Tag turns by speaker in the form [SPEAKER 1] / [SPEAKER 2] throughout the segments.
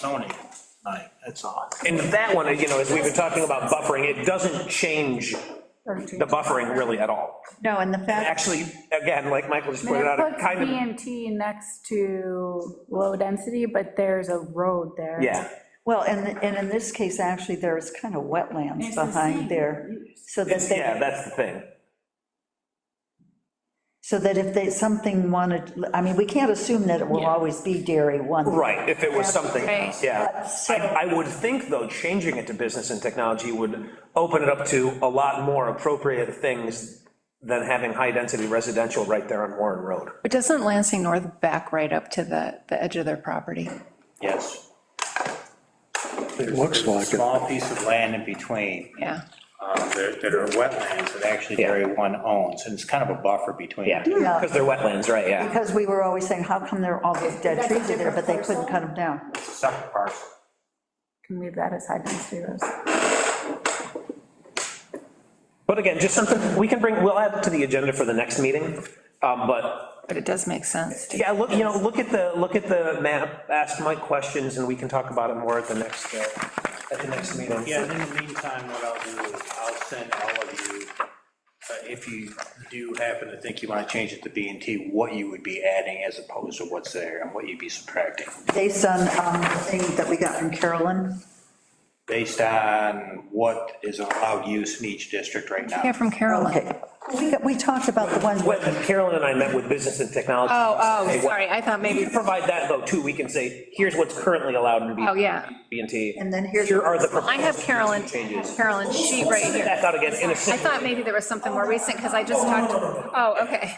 [SPEAKER 1] zoning, like, that's all.
[SPEAKER 2] And that one, you know, as we've been talking about buffering, it doesn't change the buffering really at all.
[SPEAKER 3] No, and the fact,
[SPEAKER 2] Actually, again, like Michael just
[SPEAKER 4] I mean,
[SPEAKER 2] pointed
[SPEAKER 4] it
[SPEAKER 2] out, it
[SPEAKER 4] puts
[SPEAKER 2] kind of,
[SPEAKER 4] BMT next to low density, but there's a road there.
[SPEAKER 2] yeah.
[SPEAKER 3] well, and, and in this case, actually, there is kind of wetlands
[SPEAKER 4] It's the same.
[SPEAKER 3] behind there, so that
[SPEAKER 2] It's- Yeah,
[SPEAKER 3] they,
[SPEAKER 2] that's the thing.
[SPEAKER 3] so that if they, something wanted, I mean, we can't assume that it will always be dairy one.
[SPEAKER 2] Right, if it was something else, yeah.
[SPEAKER 3] So-
[SPEAKER 2] I, I would think, though, changing it to business and technology would open it up to a lot more appropriate things than having high-density residential right there on Warren Road.
[SPEAKER 5] But doesn't Lansing North back right up to the, the edge of their property?
[SPEAKER 1] Yes.
[SPEAKER 6] It looks like it.
[SPEAKER 1] Small piece of land in between,
[SPEAKER 5] Yeah.
[SPEAKER 1] um, that that are wetlands that actually Area 1 owns, and it's kind of a buffer between.
[SPEAKER 3] Yeah.
[SPEAKER 2] Because they're wetlands, right, yeah.
[SPEAKER 3] Because we were always saying, how come there are all these dead trees in there, but they couldn't cut them down?
[SPEAKER 1] It's a separate parcel.
[SPEAKER 4] Can leave that as high density roads.
[SPEAKER 2] But again, just something, we can bring, we'll add to the agenda for the next meeting, um, but
[SPEAKER 5] But it does make sense. to-
[SPEAKER 2] Yeah, look, you know, look at the, look at the map, ask Mike questions, and we can talk about it more at the next, uh, at the next meeting.
[SPEAKER 1] Yeah, and in the meantime, what I'll do is I'll send all of you, uh, if you do happen to think you want to change it to B and T, what you would be adding as opposed to what's there and what you'd be subtracting,
[SPEAKER 3] Based on um, the thing that we got from Carolyn,
[SPEAKER 1] based on what is allowed use in each district right now.
[SPEAKER 5] Yeah, from Carolyn.
[SPEAKER 3] okay, we, got- we talked about the ones,
[SPEAKER 2] When Carolyn and I met with business and technology.
[SPEAKER 5] Oh,
[SPEAKER 2] Hey,
[SPEAKER 5] oh,
[SPEAKER 2] what-
[SPEAKER 5] sorry, I thought
[SPEAKER 2] We
[SPEAKER 5] maybe,
[SPEAKER 2] can provide that, though, too, we can say, here's what's currently allowed in B.
[SPEAKER 5] Oh, yeah.
[SPEAKER 2] B and T.
[SPEAKER 3] and then here's.
[SPEAKER 2] Here are the.
[SPEAKER 5] I have Carolyn, Carolyn sheet right here.
[SPEAKER 2] Back out again, in a
[SPEAKER 5] I
[SPEAKER 2] second.
[SPEAKER 5] thought maybe there was something more recent, because I just talked, oh, okay.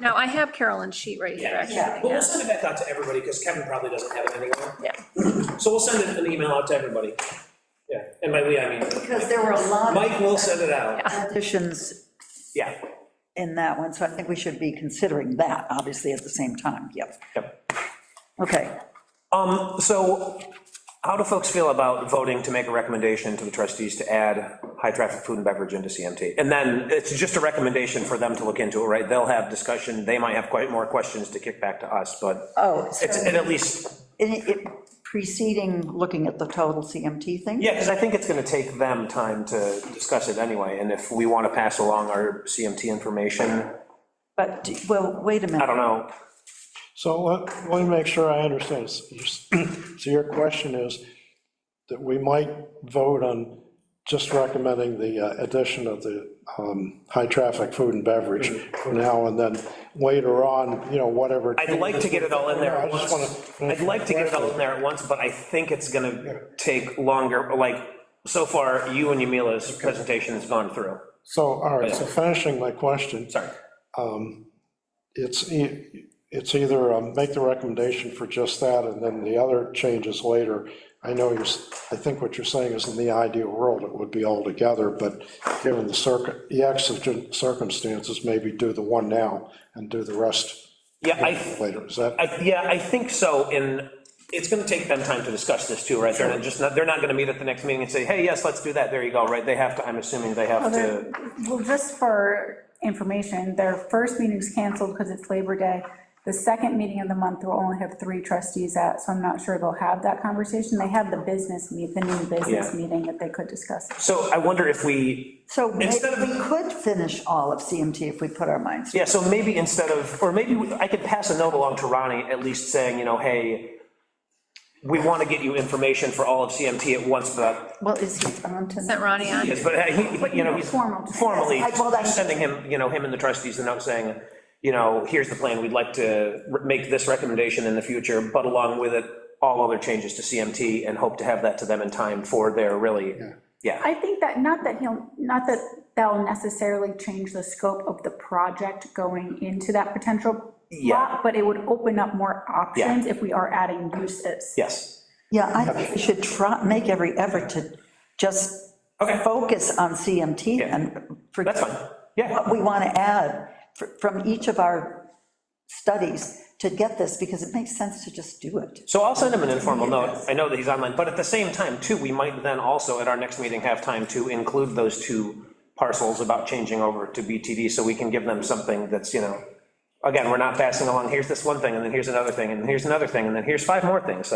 [SPEAKER 5] No, I have Carolyn's sheet right here, actually,
[SPEAKER 3] Yeah.
[SPEAKER 5] yeah.
[SPEAKER 2] We'll send it back out to everybody, because Kevin probably doesn't have it anywhere.
[SPEAKER 5] Yeah.
[SPEAKER 2] So we'll send an email out to everybody. Yeah, and by we, I mean,
[SPEAKER 3] Because there were a lot
[SPEAKER 2] Mike
[SPEAKER 3] of
[SPEAKER 2] will send it out.
[SPEAKER 3] additions
[SPEAKER 2] Yeah.
[SPEAKER 3] in that one, so I think we should be considering that, obviously, at the same time, yep.
[SPEAKER 2] Yep.
[SPEAKER 3] Okay,
[SPEAKER 2] Um, so how do folks feel about voting to make a recommendation to the trustees to add high-traffic food and beverage into CMT? And then it's just a recommendation for them to look into it, right? They'll have discussion, they might have quite more questions to kick back to us, but
[SPEAKER 3] oh,
[SPEAKER 2] it's,
[SPEAKER 3] so,
[SPEAKER 2] and at least,
[SPEAKER 3] in- it- preceding looking at the total CMT thing?
[SPEAKER 2] yeah, because I think it's gonna take them time to discuss it anyway, and if we want to pass along our CMT information,
[SPEAKER 3] But, do- well, wait a minute.
[SPEAKER 2] I don't know.
[SPEAKER 6] So let, let me make sure I understand. So your question is that we might vote on just recommending the uh, addition of the um, high-traffic food and beverage for now, and then later on, you know, whatever.
[SPEAKER 2] I'd like to get it all in there
[SPEAKER 6] I
[SPEAKER 2] at
[SPEAKER 6] just
[SPEAKER 2] once.
[SPEAKER 6] wanna-
[SPEAKER 2] I'd like to get it all in there at once, but I think it's gonna take longer, like, so far, you and Yamila's presentation has gone through.
[SPEAKER 6] So, all right, so finishing my question.
[SPEAKER 2] Sorry.
[SPEAKER 6] it's, e- it's either um, make the recommendation for just that, and then the other changes later. I know you're, s- I think what you're saying is in the ideal world, it would be all together, but given the circ, the exigent circumstances, maybe do the one now and do the rest
[SPEAKER 2] Yeah, I,
[SPEAKER 6] later. Is that,
[SPEAKER 2] I, yeah, I think so, and it's gonna take them time to discuss this too, right? They're not just, not- they're not gonna meet at the next meeting and say, hey, yes, let's do that, there you go, right? They have to, I'm assuming they have to,
[SPEAKER 4] Well, just for information, their first meeting's canceled because it's Labor Day. The second meeting of the month, will only have three trustees at, so I'm not sure they'll have that conversation. They have the business meet, the new business
[SPEAKER 2] Yeah.
[SPEAKER 4] meeting that they could discuss.
[SPEAKER 2] so I wonder if we,
[SPEAKER 3] So may-
[SPEAKER 2] Instead of-
[SPEAKER 3] we could finish all of CMT if we put our minds to it.
[SPEAKER 2] Yeah, so maybe instead of, or maybe we- I could pass a note along to Ronnie, at least saying, you know, hey, we want to get you information for all of CMT at once, but,
[SPEAKER 3] Well, is he on to?
[SPEAKER 5] Sent Ronnie on.
[SPEAKER 2] yes, but, uh, he- but, you know, he's
[SPEAKER 4] Formal.
[SPEAKER 2] formally
[SPEAKER 3] Yes, I- well, that's-
[SPEAKER 2] sending him, you know, him and the trustees a note saying, you know, here's the plan, we'd like to re- make this recommendation in the future, but along with it, all other changes to CMT, and hope to have that to them in time for their really, yeah.
[SPEAKER 4] I think that, not that he'll, not that they'll necessarily change the scope of the project going into that potential
[SPEAKER 2] Yeah.
[SPEAKER 4] lot, but it would open up more options if we are adding uses.
[SPEAKER 2] Yes.
[SPEAKER 3] Yeah, I think we should try, make every effort to just focus on CMT and.
[SPEAKER 2] That's fine. Yeah.
[SPEAKER 3] What we want to add fr- from each of our studies to get this, because it makes sense to just do it.
[SPEAKER 2] So I'll send him an informal note, I know that he's online, but at the same time, too, we might then also, at our next meeting, have time to include those two parcels about changing over to BTD, so we can give them something that's, you know, again, we're not passing along, here's this one thing, and then here's another thing, and here's another thing, and then here's five more things, so